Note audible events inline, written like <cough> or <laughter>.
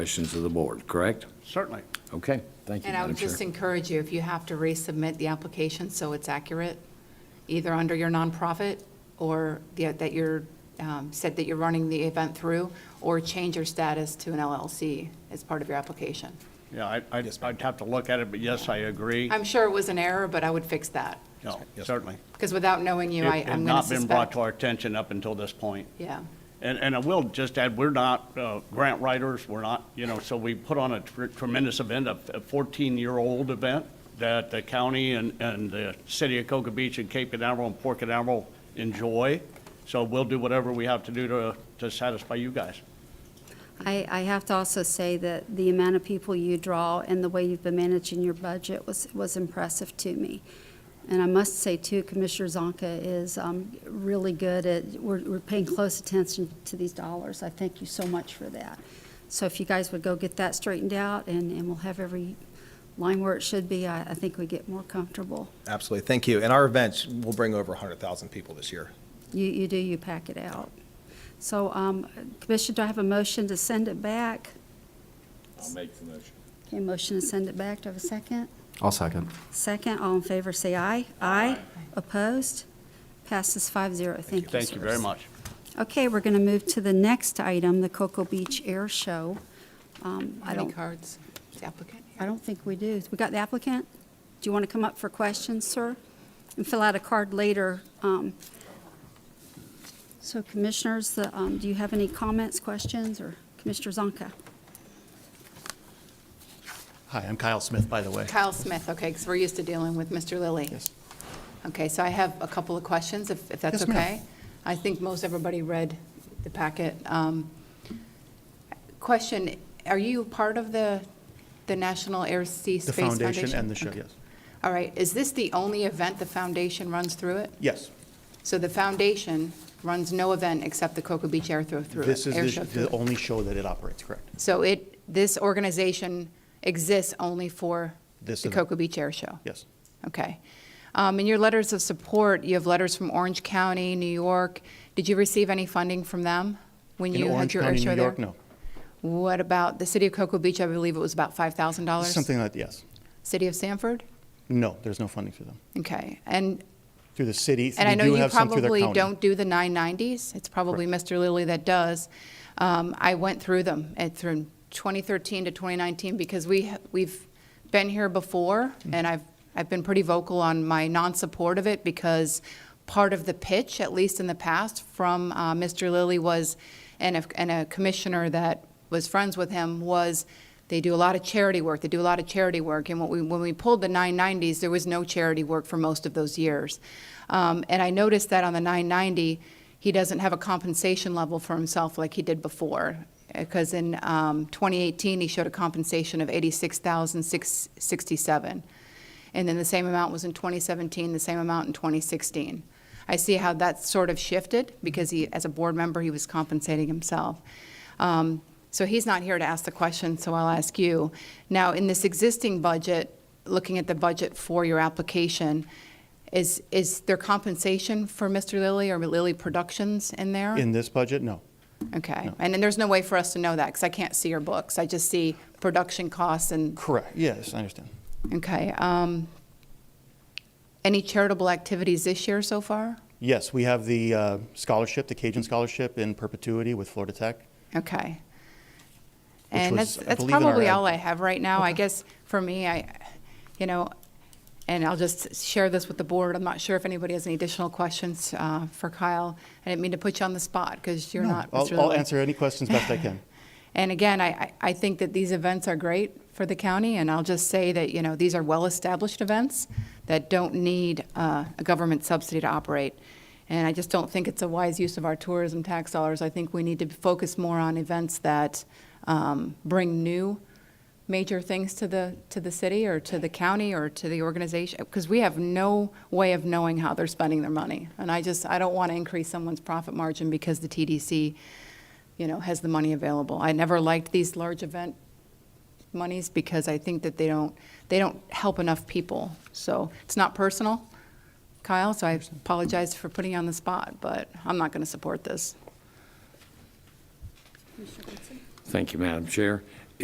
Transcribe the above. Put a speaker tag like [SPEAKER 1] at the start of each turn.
[SPEAKER 1] Questions of the board, correct?
[SPEAKER 2] Certainly.
[SPEAKER 1] Okay, thank you,
[SPEAKER 3] And I
[SPEAKER 1] Madam
[SPEAKER 3] would
[SPEAKER 1] Chair.
[SPEAKER 3] just encourage you, if you have to resubmit the application so it's accurate, either under your nonprofit or the- that you're, um, said that you're running the event through, or change your status to an LLC as part of your application.
[SPEAKER 2] Yeah, I- I'd I'd have to look at it, but yes, I agree.
[SPEAKER 3] I'm sure it was an error, but I would fix that,
[SPEAKER 2] No, certainly.
[SPEAKER 3] because without knowing you, I,
[SPEAKER 2] It had
[SPEAKER 3] I'm going to
[SPEAKER 2] not been brought
[SPEAKER 3] suspect.
[SPEAKER 2] to our attention up until this point.
[SPEAKER 3] Yeah,
[SPEAKER 2] And, and I will just add, we're not uh, grant writers, we're not, you know, so we put on a tr- tremendous event, a 14-year-old event that the county and, and the city of Cocoa Beach and Cape Canaveral and Port Canaveral enjoy. So we'll do whatever we have to do to, to satisfy you guys.
[SPEAKER 4] I, I have to also say that the amount of people you draw and the way you've been managing your budget was, was impressive to me. And I must say too, Commissioner Zonka is um, really good at, we're, we're paying close attention to these dollars. I thank you so much for that. So if you guys would go get that straightened out and, and we'll have every line where it should be, I, I think we get more comfortable.
[SPEAKER 5] Absolutely, thank you. And our events will bring over 100,000 people this year.
[SPEAKER 4] You, you do, you pack it out. So, um, Commissioner, do I have a motion to send it back?
[SPEAKER 6] I'll make the motion.
[SPEAKER 4] Okay, motion to send it back. Do I have a second?
[SPEAKER 7] I'll second.
[SPEAKER 4] Second, all in favor, say aye. Aye. Opposed? Passes five zero. Thank you, sir.
[SPEAKER 2] Thank you very much.
[SPEAKER 4] Okay, we're going to move to the next item, the Cocoa Beach Air Show. Um, I
[SPEAKER 3] how many
[SPEAKER 4] don't,
[SPEAKER 3] cards, is the applicant?
[SPEAKER 4] I don't think we do. We got the applicant? Do you want to come up for questions, sir? And fill out a card later. Um, So commissioners, the, um, do you have any comments, questions, or Commissioner Zonka?
[SPEAKER 8] Hi, I'm Kyle Smith, by the way.
[SPEAKER 3] Kyle Smith, okay, because we're used to dealing with Mr. Lilly.
[SPEAKER 8] Yes.
[SPEAKER 3] Okay, so I have a couple of questions, if if that's
[SPEAKER 8] Yes, ma'am.
[SPEAKER 3] okay. I think most everybody read the packet. Um, Question, are you part of the, the National Air Sea
[SPEAKER 8] The
[SPEAKER 3] Space Foundation?
[SPEAKER 8] foundation and the show,
[SPEAKER 3] Okay.
[SPEAKER 8] yes.
[SPEAKER 3] All right, is this the only event the foundation runs through it?
[SPEAKER 8] Yes,
[SPEAKER 3] So the foundation runs no event except the Cocoa Beach Air Throw through it?
[SPEAKER 8] this
[SPEAKER 3] air
[SPEAKER 8] is
[SPEAKER 3] show
[SPEAKER 8] the-
[SPEAKER 3] through
[SPEAKER 8] the
[SPEAKER 3] it.
[SPEAKER 8] only show that it operates, correct?
[SPEAKER 3] So it, this organization exists only for
[SPEAKER 8] This
[SPEAKER 3] the
[SPEAKER 8] event.
[SPEAKER 3] Cocoa Beach Air Show?
[SPEAKER 8] Yes.
[SPEAKER 3] Okay. Um, In your letters of support, you have letters from Orange County, New York. Did you receive any funding from them when
[SPEAKER 8] In
[SPEAKER 3] you had
[SPEAKER 8] Orange
[SPEAKER 3] your air
[SPEAKER 8] County,
[SPEAKER 3] show
[SPEAKER 8] New
[SPEAKER 3] there?
[SPEAKER 8] York, no.
[SPEAKER 3] What about the city of Cocoa Beach? I believe it was about $5,000?
[SPEAKER 8] Something like, yes.
[SPEAKER 3] City of Sanford?
[SPEAKER 8] No, there's no funding for them.
[SPEAKER 3] Okay. And,
[SPEAKER 8] Through the city,
[SPEAKER 3] and I
[SPEAKER 8] we
[SPEAKER 3] know
[SPEAKER 8] do
[SPEAKER 3] you
[SPEAKER 8] have some through their
[SPEAKER 3] probably
[SPEAKER 8] county.
[SPEAKER 3] don't do the 990s. It's probably Mr. Lilly that does. Um, I went through them at, through 2013 to 2019 because we, we've been here before
[SPEAKER 8] Mm-hmm.
[SPEAKER 3] and I've, I've been pretty vocal on my non-support of it because part of the pitch, at least in the past, from uh, Mr. Lilly was, and a, and a commissioner that was friends with him, was they do a lot of charity work, they do a lot of charity work. And when we, when we pulled the 990s, there was no charity work for most of those years. Um, And I noticed that on the 990, he doesn't have a compensation level for himself like he did before. Because in um, 2018, he showed a compensation of 86,667. And then the same amount was in 2017, the same amount in 2016. I see how that sort of shifted because he, as a board member, he was compensating himself. Um, So he's not here to ask the question, so I'll ask you. Now, in this existing budget, looking at the budget for your application, is, is there compensation for Mr. Lilly or Lilly Productions in there?
[SPEAKER 8] In this budget, no.
[SPEAKER 3] Okay, and then there's no way for us to know that because I can't see your books. I just see production costs and
[SPEAKER 8] Correct, yes, I understand.
[SPEAKER 3] Okay. um, Any charitable activities this year so far?
[SPEAKER 8] Yes, we have the uh, scholarship, the Cajun Scholarship in perpetuity with Florida Tech.
[SPEAKER 3] Okay.
[SPEAKER 8] Which
[SPEAKER 3] And
[SPEAKER 8] was,
[SPEAKER 3] that's,
[SPEAKER 8] I
[SPEAKER 3] that's
[SPEAKER 8] believe, in our
[SPEAKER 3] probably
[SPEAKER 8] ad-
[SPEAKER 3] all I have right now. I guess for me, I, you know, and I'll just share this with the board. I'm not sure if anybody has any additional questions uh, for Kyle. I didn't mean to put you on the spot because you're
[SPEAKER 8] No,
[SPEAKER 3] not.
[SPEAKER 8] I'll-
[SPEAKER 3] Mr.
[SPEAKER 8] I'll
[SPEAKER 3] Lilly.
[SPEAKER 8] answer any questions best I
[SPEAKER 3] <laughs>
[SPEAKER 8] can.
[SPEAKER 3] And again, I, I- I think that these events are great for the county, and I'll just say that, you know, these are well-established events that don't need uh, a government subsidy to operate. And I just don't think it's a wise use of our tourism tax dollars. I think we need to focus more on events that um, bring new major things to the, to the city or to the county or to the organization, because we have no way of knowing how they're spending their money. And I just, I don't want to increase someone's profit margin because the TDC you know, has the money available. I never liked these large event monies because I think that they don't, they don't help enough people. So it's not personal, Kyle, so I apologize for putting you on the spot, but I'm not going to support this.
[SPEAKER 1] Thank you, Madam Chair.